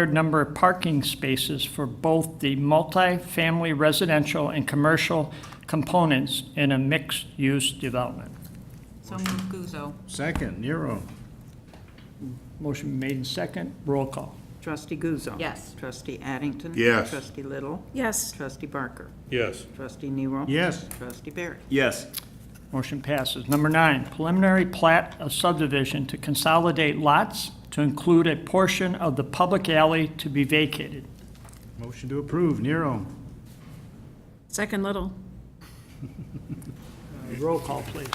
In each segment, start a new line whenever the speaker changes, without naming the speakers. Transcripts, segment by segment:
required number of parking spaces for both the multifamily residential and commercial components in a mixed-use development.
So move Guzzo.
Second, Nero.
Motion made in second, roll call.
Trustee Guzzo.
Yes.
Trustee Addington.
Yes.
Trustee Little.
yes,
Trustee Barker.
Yes.
Trustee Nero.
Yes.
Trustee Barry.
Yes.
Motion passes. Number nine, preliminary plat of subdivision to consolidate lots to include a portion of the public alley to be vacated.
Motion to approve, Nero.
second Little,
Uh, Roll call, please.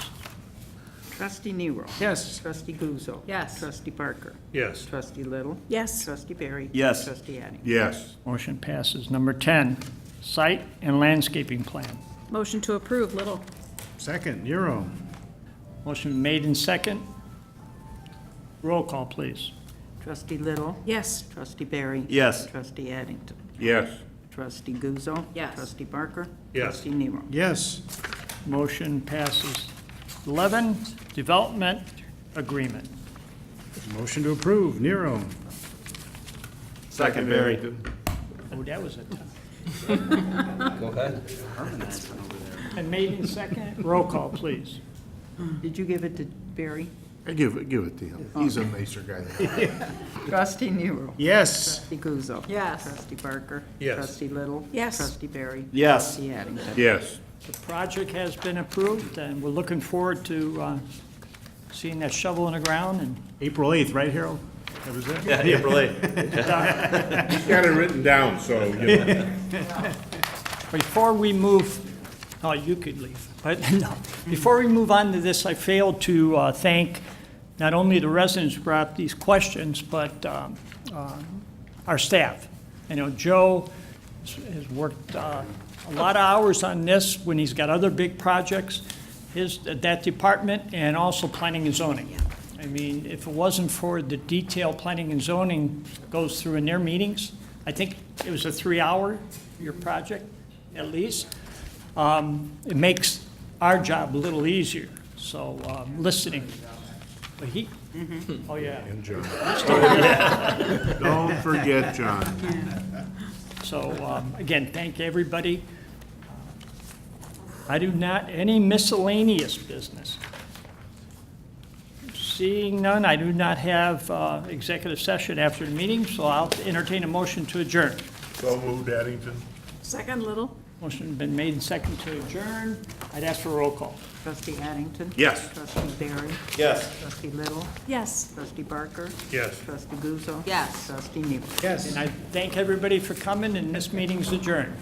Trustee Nero.
Yes.
Trustee Guzzo.
Yes.
Trustee Barker.
Yes.
Trustee Little.
yes,
Trustee Barry.
Yes.
Trustee Addington.
Yes.
Motion passes. Number 10, site and landscaping plan.
motion to approve Little,
Second, Nero.
Motion made in second. Roll call, please.
Trustee Little.
yes,
Trustee Barry.
Yes.
Trustee Addington.
Yes.
Trustee Guzzo.
Yes.
Trustee Barker.
Yes.
Trustee Nero.
Yes.
Motion passes. 11, development agreement.
Motion to approve, Nero.
Second, Barry.
Oh, that was it. Go ahead. And made in second, roll call, please.
Did you give it to Barry?
I give it, give it to him. He's a nicer guy than I am.
Trustee Nero.
Yes.
Trustee Guzzo.
Yes.
Trustee Barker.
Yes.
Trustee Little.
Yes.
Trustee Barry.
Yes.
Trustee Addington.
Yes.
The project has been approved, and we're looking forward to uh, seeing that shovel in the ground and
April 8th, right, Harold? That was it?
Yeah, April 8th.
He's got it written down, so, you know.
Before we move, oh, you could leave, but no. Before we move on to this, I failed to uh, thank not only the residents who brought up these questions, but um, uh, our staff. You know, Joe has- has worked uh, a lot of hours on this when he's got other big projects, his, that department, and also planning and zoning. I mean, if it wasn't for the detail planning and zoning goes through in their meetings, I think it was a three-hour, your project, at least, um, it makes our job a little easier, so, um, listening. But he, oh, yeah,
And John. Don't forget John.
so, um, again, thank everybody. I do not, any miscellaneous business. Seeing none, I do not have uh, executive session after the meeting, so I'll entertain a motion to adjourn.
So moved, Addington.
second Little,
Motion been made and seconded to adjourn. I'd ask for a roll call.
Trustee Addington.
Yes.
Trustee Barry.
Yes.
Trustee Little.
yes.
Trustee Barker.
Yes.
Trustee Guzzo.
Yes.
Trustee Nero.
Yes.
And I thank everybody for coming, and this meeting's adjourned.